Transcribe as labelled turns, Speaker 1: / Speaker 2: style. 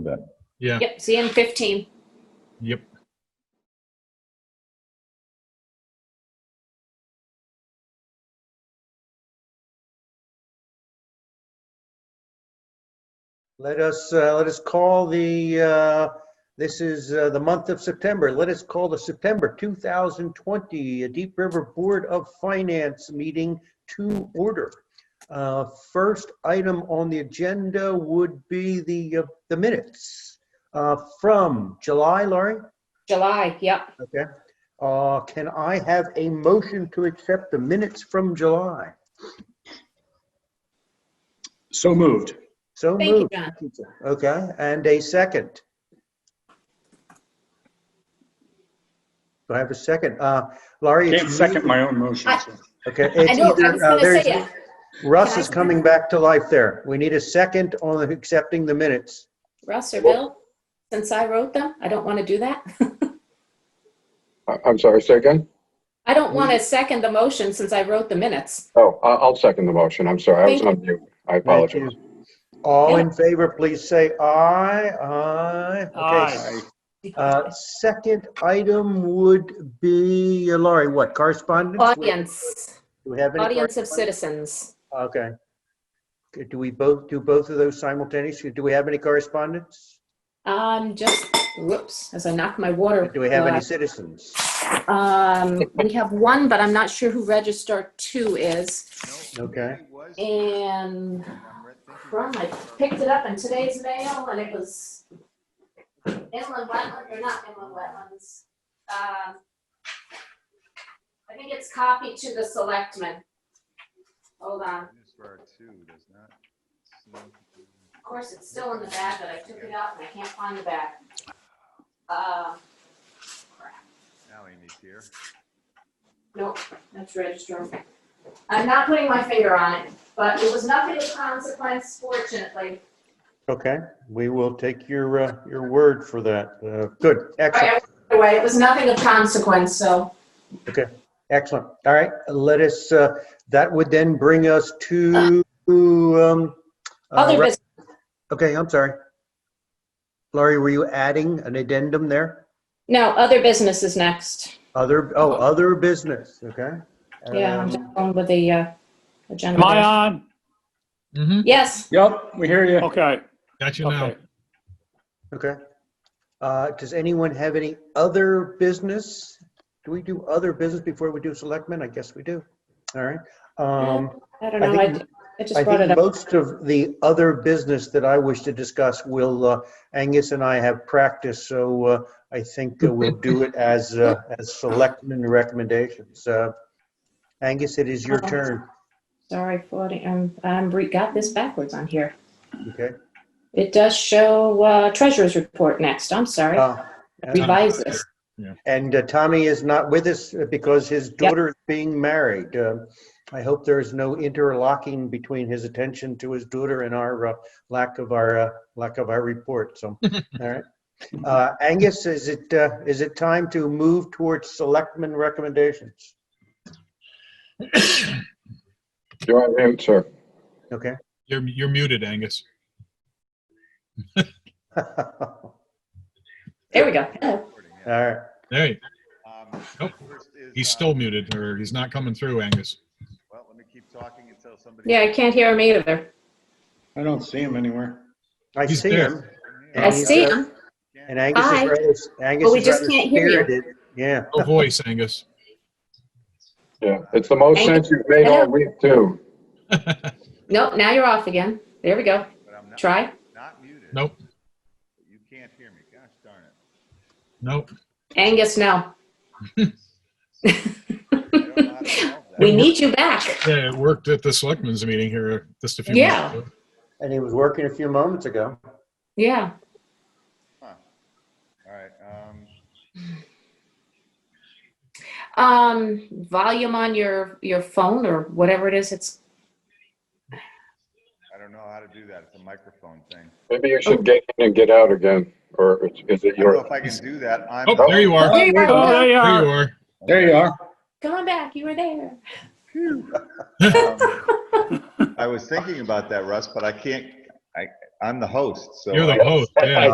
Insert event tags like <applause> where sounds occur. Speaker 1: that.
Speaker 2: Yeah,
Speaker 3: Yep, see you in 15.
Speaker 2: yep.
Speaker 4: Let us, uh, let us call the, uh, this is uh, the month of September. Let us call the September 2020 Deep River Board of Finance meeting to order. Uh, First item on the agenda would be the, uh, the minutes uh, from July, Laurie?
Speaker 3: July, yep.
Speaker 4: Okay. Uh, Can I have a motion to accept the minutes from July?
Speaker 1: So moved.
Speaker 4: So
Speaker 3: Thank you,
Speaker 4: moved.
Speaker 3: John.
Speaker 4: Okay, and a second. Do I have a second? Uh, Laurie? it's
Speaker 1: Can't second
Speaker 4: you.
Speaker 1: my own motion. so.
Speaker 4: Okay.
Speaker 3: I
Speaker 4: it's
Speaker 3: know,
Speaker 4: either,
Speaker 3: I was
Speaker 4: uh,
Speaker 3: going to
Speaker 4: there's-
Speaker 3: say it.
Speaker 4: Russ
Speaker 3: Can I
Speaker 4: is
Speaker 3: say-
Speaker 4: coming back to life there. We need a second on accepting the minutes.
Speaker 3: Russ or Bill, since I wrote them, I don't want to do that. <laughs>
Speaker 5: I- I'm sorry, say again?
Speaker 3: I don't want to second the motion since I wrote the minutes.
Speaker 5: Oh, I- I'll second the motion. I'm sorry, I was
Speaker 3: Thank
Speaker 5: on mute. I
Speaker 4: Thank
Speaker 5: apologize.
Speaker 4: you. All
Speaker 3: Yeah.
Speaker 4: in favor, please say aye. Aye. Okay.
Speaker 1: Aye.
Speaker 4: Uh, Second item would be, uh, Laurie, what, correspondence?
Speaker 3: Audience,
Speaker 4: Do we have any?
Speaker 3: audience of
Speaker 4: correspondence?
Speaker 3: citizens.
Speaker 4: Okay. Okay, Do we both, do both of those simultaneously? Do we have any correspondence?
Speaker 3: Um, just, whoops, as I knock my water.
Speaker 4: Do we have any
Speaker 3: glass.
Speaker 4: citizens?
Speaker 3: Um, we have one, but I'm not sure who Register Two is.
Speaker 4: Okay.
Speaker 3: And from, I picked it up in today's mail and it was inland wetland, or not inland wetlands. Um, I think it's copied to the selectmen. Hold on, of course, it's still in the bag, but I took it out and I can't find the bag. Uh,
Speaker 6: Now Amy's here.
Speaker 3: Nope, that's registering. I'm not putting my finger on it, but it was nothing of consequence fortunately.
Speaker 4: Okay, we will take your, uh, your word for that. Uh, Good,
Speaker 3: All
Speaker 4: excellent,
Speaker 3: right, Anyway, it was nothing of consequence, so.
Speaker 4: excellent. All right, let us, uh, that would then bring us to, um, uh,
Speaker 3: Other
Speaker 4: re-
Speaker 3: business,
Speaker 4: Okay, I'm sorry. Laurie, were you adding an addendum there?
Speaker 3: no, other business is next.
Speaker 4: Other, oh, other business, okay?
Speaker 3: Yeah, I'm
Speaker 4: Um,
Speaker 3: just going with the uh, agenda.
Speaker 7: Am I on?
Speaker 2: Mm-hmm.
Speaker 3: Yes,
Speaker 1: Yep, we hear you.
Speaker 7: Okay.
Speaker 2: Got you now.
Speaker 7: Okay.
Speaker 4: Okay. Uh, Does anyone have any other business? Do we do other business before we do selectmen? I guess we do. All right. Um,
Speaker 3: I don't
Speaker 4: I
Speaker 3: know, I
Speaker 4: think-
Speaker 3: d- I just
Speaker 4: I
Speaker 3: brought it
Speaker 4: think
Speaker 3: up.
Speaker 4: most of the other business that I wish to discuss will, uh, Angus and I have practiced, so uh, I think uh, we'll do
Speaker 3: <laughs>
Speaker 4: it as, uh, as selectmen recommendations. Uh, Angus, it is your
Speaker 3: Um,
Speaker 4: turn,
Speaker 3: Sorry, 40, I'm, I'm, re- got this backwards on here.
Speaker 4: okay?
Speaker 3: It does show uh, treasurer's report next, I'm sorry.
Speaker 4: Uh,
Speaker 3: Revise this.
Speaker 4: And uh, Tommy is not with us because his daughter is being married. Um, I hope there is no interlocking between his attention to his daughter and our uh, lack of our, uh, lack of our
Speaker 3: <laughs>
Speaker 4: report, so, all right. Uh, Angus, is it, uh, is it time to move towards selectmen recommendations?
Speaker 5: You're on mute, sir.
Speaker 4: Okay. <laughs>
Speaker 2: You're, you're muted, Angus.
Speaker 4: All
Speaker 3: There we go. Hello.
Speaker 6: Recording, yeah.
Speaker 4: right,
Speaker 2: Hey,
Speaker 6: Um,
Speaker 2: Nope.
Speaker 6: first is,
Speaker 2: he's
Speaker 6: uh,
Speaker 2: still muted, or he's not coming through, Angus.
Speaker 6: Well, let me keep talking until somebody.
Speaker 3: Yeah, I can't hear him either.
Speaker 1: I don't see him anywhere.
Speaker 4: I
Speaker 2: He's
Speaker 4: see
Speaker 2: there.
Speaker 4: him.
Speaker 3: I
Speaker 4: And he's,
Speaker 3: see
Speaker 4: uh,
Speaker 3: him.
Speaker 4: And Angus
Speaker 3: Hi.
Speaker 4: is rather, Angus
Speaker 3: But we
Speaker 4: is
Speaker 3: just
Speaker 4: rather
Speaker 3: can't hear you.
Speaker 4: spirited. Yeah,
Speaker 2: No voice, Angus.
Speaker 5: Yeah, it's the most
Speaker 3: Thank
Speaker 5: sense you've made all week, too.
Speaker 3: Nope, now you're off again. There we go.
Speaker 6: But I'm not-
Speaker 3: Try.
Speaker 6: Not muted.
Speaker 2: Nope,
Speaker 6: but You can't hear me. Gosh darn
Speaker 3: <laughs>
Speaker 6: it.
Speaker 2: nope.
Speaker 3: Angus, no.
Speaker 6: I don't know how to solve that.
Speaker 3: We need you back.
Speaker 2: Yeah, it worked at the selectmen's meeting here just a few
Speaker 3: Yeah.
Speaker 2: minutes ago.
Speaker 4: and he was working a few moments ago.
Speaker 3: Yeah.
Speaker 6: Huh. All right, um,
Speaker 3: Um, volume on your, your phone or whatever it is, it's
Speaker 6: I don't know how to do that. It's a microphone thing.
Speaker 5: Maybe you
Speaker 3: Oh.
Speaker 5: should get in and get out again, or is- is it
Speaker 6: I don't know
Speaker 5: your,
Speaker 6: if I can do that. I'm.
Speaker 2: Oh, there you are.
Speaker 3: There you
Speaker 7: Oh,
Speaker 3: are.
Speaker 7: there you
Speaker 2: There you
Speaker 7: are.
Speaker 2: are.
Speaker 1: There you are.
Speaker 3: Come on back. You were there.
Speaker 6: Um, I was thinking about that, Russ, but I can't, I, I'm the host, so.
Speaker 2: You're
Speaker 6: I-
Speaker 2: the host, yeah.